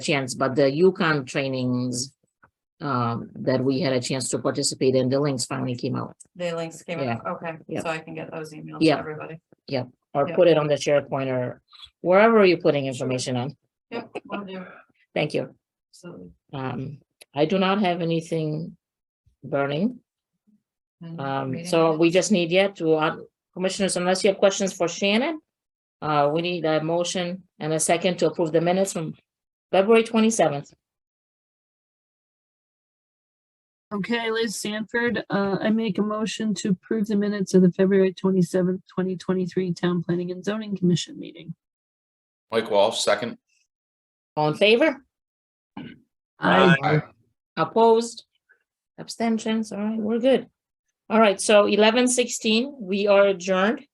chance, but the UConn trainings um, that we had a chance to participate in, the links finally came out. The links came out, okay, Yeah. so I can get those emailed to Yeah. everybody. Or Yeah. put it on the SharePoint or wherever you're putting information on. Yep, will do, Thank you. absolutely. Um, I do not have anything burning. And Um, meeting so minutes. we just need yet to, uh, commissioners, unless you have questions for Shannon, uh, we need a motion and a second to approve the minutes from February twenty-seventh. Okay, Liz Sanford, uh, I make a motion to approve the minutes of the February twenty-seventh, twenty twenty-three Town Planning and Zoning Commission meeting. Mike Walsh, second. All in favor? I, Opposed? Abstentions? All right, we're good. All right, so eleven sixteen, we are adjourned.